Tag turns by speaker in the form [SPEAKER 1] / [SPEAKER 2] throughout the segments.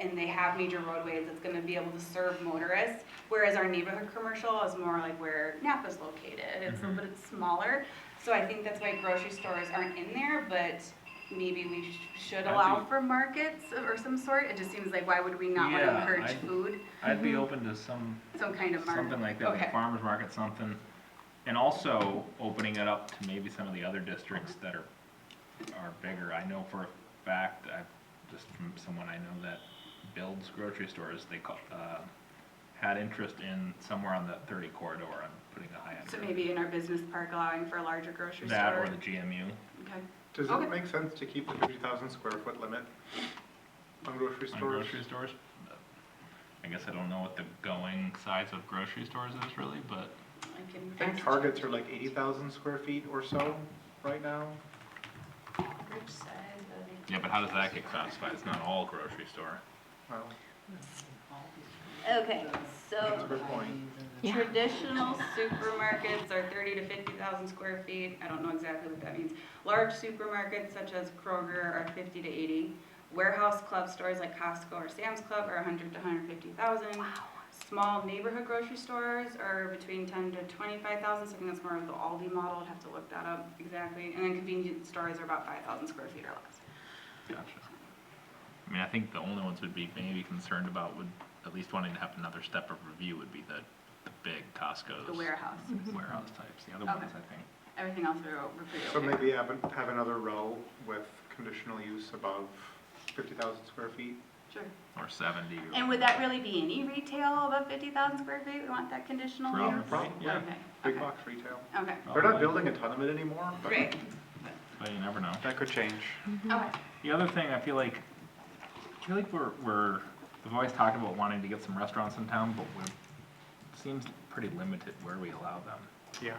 [SPEAKER 1] and they have major roadways, it's gonna be able to serve motorists. Whereas our neighborhood commercial is more like where Napa's located, it's,
[SPEAKER 2] Mhm.
[SPEAKER 1] but it's smaller. So I think that's why grocery stores aren't in there, but maybe we sh- should
[SPEAKER 2] I
[SPEAKER 1] allow
[SPEAKER 2] think-
[SPEAKER 1] for markets of- or some sort. It just seems like, why would we not wanna
[SPEAKER 2] Yeah,
[SPEAKER 1] encourage
[SPEAKER 2] I-
[SPEAKER 1] food,
[SPEAKER 2] I'd
[SPEAKER 1] Mm-hmm.
[SPEAKER 2] be open to some,
[SPEAKER 1] some kind of market?
[SPEAKER 2] something like that, like
[SPEAKER 1] Okay.
[SPEAKER 2] farmer's market, something. And also opening it up to maybe some of the other districts that are, are bigger. I know for a fact, I, just from someone I know that builds grocery stores, they call, uh, had interest in somewhere on the thirty corridor on putting a high-end.
[SPEAKER 1] So
[SPEAKER 2] grocery-
[SPEAKER 1] maybe in our business park allowing for a larger grocery store?
[SPEAKER 2] That or the GMU.
[SPEAKER 1] Okay.
[SPEAKER 3] Does
[SPEAKER 1] Okay.
[SPEAKER 3] it make sense to keep the fifty thousand square foot limit on grocery
[SPEAKER 2] on
[SPEAKER 3] stores?
[SPEAKER 2] grocery stores. I guess I don't know what the going size of grocery stores is really, but
[SPEAKER 1] I can.
[SPEAKER 3] I think
[SPEAKER 1] ask-
[SPEAKER 3] targets are like eighty thousand square feet or so right now.
[SPEAKER 2] yeah, but how does that get classified? It's not all grocery store.
[SPEAKER 3] Well,
[SPEAKER 4] Okay,
[SPEAKER 3] that's a
[SPEAKER 4] so
[SPEAKER 1] Oh.
[SPEAKER 3] good point.
[SPEAKER 1] Traditional supermarkets are thirty to fifty thousand square feet, I don't know exactly what that means. Large supermarkets such as Kroger are fifty to eighty. Warehouse club stores like Costco or Sam's Club are hundred to hundred fifty thousand. Small neighborhood grocery stores are between ten to twenty-five thousand, so I think that's more of the Aldi model, I'd have to look that up exactly. And then convenience stores are about five thousand square feet or less.
[SPEAKER 2] Gotcha. I mean, I think the only ones would be maybe concerned about would, at least wanting to have another step of review would be the, the big Costco's. Mm-hmm.
[SPEAKER 1] The warehouse, Mm-hmm.
[SPEAKER 2] warehouse types, the other
[SPEAKER 1] Okay.
[SPEAKER 2] ones, I think.
[SPEAKER 1] everything else we're, we're pretty okay.
[SPEAKER 3] So maybe have, an- have another row with conditional use above fifty thousand square feet.
[SPEAKER 1] Sure.
[SPEAKER 2] Or seventy or.
[SPEAKER 1] And would that really be any retail above fifty thousand square feet? We want that conditional
[SPEAKER 2] Probably,
[SPEAKER 1] use?
[SPEAKER 3] right,
[SPEAKER 2] yeah.
[SPEAKER 1] Okay,
[SPEAKER 3] Big
[SPEAKER 1] okay,
[SPEAKER 3] box retail.
[SPEAKER 1] Okay,
[SPEAKER 3] They're not building a ton of it anymore, but
[SPEAKER 1] great,
[SPEAKER 2] But you never know.
[SPEAKER 3] that could change.
[SPEAKER 1] okay.
[SPEAKER 2] The other thing, I feel like, I feel like we're, we're, we've always talked about wanting to get some restaurants in town, but we're, it seems pretty limited where we allow them.
[SPEAKER 3] Yeah.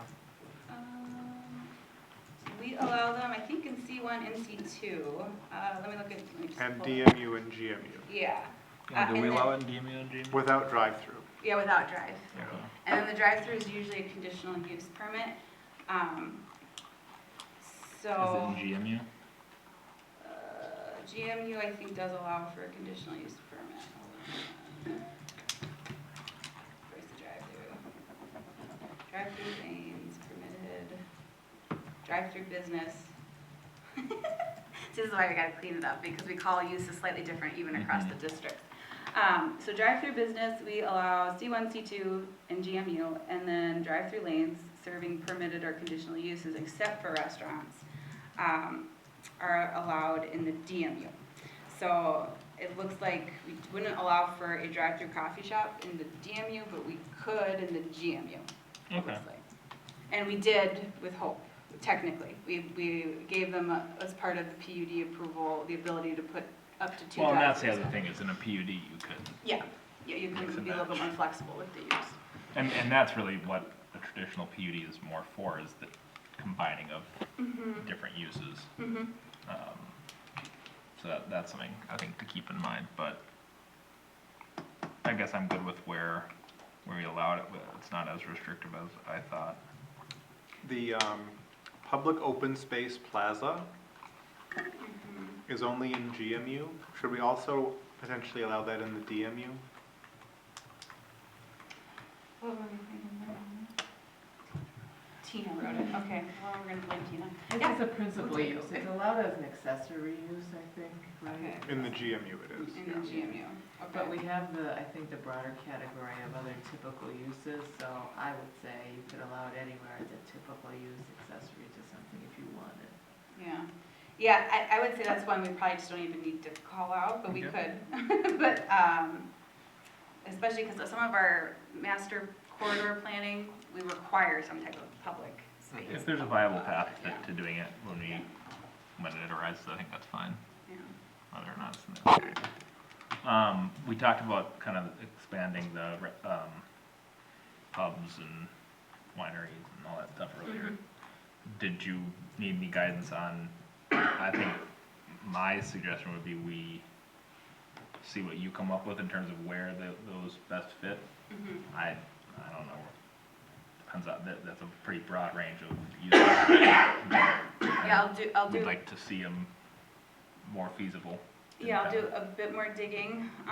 [SPEAKER 1] Um, so We allow them, I think, in C one and C two. Uh, let me look at, let me just.
[SPEAKER 3] And
[SPEAKER 1] pull-
[SPEAKER 3] DMU and GMU
[SPEAKER 1] Yeah,
[SPEAKER 2] Yeah,
[SPEAKER 1] Uh,
[SPEAKER 2] do we
[SPEAKER 1] and
[SPEAKER 2] allow it in DMU and GMU?
[SPEAKER 3] without drive-through.
[SPEAKER 1] yeah, without drive.
[SPEAKER 2] Yeah.
[SPEAKER 1] And then the drive-through is usually a conditional use permit. Um, so,
[SPEAKER 2] Is it in GMU?
[SPEAKER 1] uh, GMU, I think, does allow for a conditional use permit. Hold on. Where's the drive-through? Drive-through lanes permitted, drive-through business. This is why we gotta clean it up, because we call uses slightly different even across the districts. Um, so drive-through business, we allow C one, C two, and GMU, and then drive-through lanes serving permitted or conditional uses except for restaurants, um, are allowed in the DMU. So it looks like we wouldn't allow for a drive-through coffee shop in the DMU, but we could in the GMU. it looks
[SPEAKER 2] Okay.
[SPEAKER 1] like. And we did with Hope, technically. We, we gave them, a- as part of the PUD approval, the ability to put up to two
[SPEAKER 2] Well, and that's
[SPEAKER 1] drive
[SPEAKER 2] the other thing, is in a PUD you could,
[SPEAKER 1] Yeah, yeah, you
[SPEAKER 2] Mix
[SPEAKER 1] can
[SPEAKER 2] and
[SPEAKER 1] be a little bit
[SPEAKER 2] match.
[SPEAKER 1] more flexible with the use.
[SPEAKER 2] and, and that's really what a traditional PUD is more for, is the combining of different uses.
[SPEAKER 1] Mm-hmm.
[SPEAKER 2] Um, So that, that's something I think to keep in mind, but I guess I'm good with where, where we allowed it, but it's not as restrictive as I thought.
[SPEAKER 3] The um, public open space plaza is only in GMU. Should we also potentially allow that in the DMU?
[SPEAKER 1] What were we thinking about? Tina wrote it, okay, well, we're gonna blame Tina.
[SPEAKER 5] It's
[SPEAKER 1] Yeah.
[SPEAKER 5] just a principal
[SPEAKER 1] We'll take
[SPEAKER 5] use,
[SPEAKER 1] it.
[SPEAKER 5] it's allowed as an accessory use, I think, right?
[SPEAKER 1] Okay.
[SPEAKER 3] In the GMU it is.
[SPEAKER 1] In the GMU,
[SPEAKER 5] But we
[SPEAKER 1] okay.
[SPEAKER 5] have the, I think, the broader category of other typical uses, so I would say you could allow it anywhere as a typical use accessory to something if you wanted.
[SPEAKER 1] Yeah, yeah, I, I would say that's one we probably just don't even need to call out, but we could. But, um, especially because some of our master corridor planning, we require some type of public space.
[SPEAKER 2] If there's a viable path
[SPEAKER 1] Yeah.
[SPEAKER 2] to, to doing it when we, when it arises, I think that's fine,
[SPEAKER 1] Yeah.
[SPEAKER 2] whether or not it's necessary. Um, we talked about kind of expanding the, re- um, pubs and wineries and all that stuff earlier.
[SPEAKER 1] Mhm.
[SPEAKER 2] Did you need any guidance on, I think my suggestion would be we see what you come up with in terms of where tho- those best fit.
[SPEAKER 1] Mhm.
[SPEAKER 2] I, I don't know, depends on, that, that's a pretty broad range of uses.
[SPEAKER 1] Yeah, I'll do, I'll
[SPEAKER 2] We'd
[SPEAKER 1] do,
[SPEAKER 2] like to see them more feasible. in
[SPEAKER 1] yeah, I'll
[SPEAKER 2] town.
[SPEAKER 1] do a bit more digging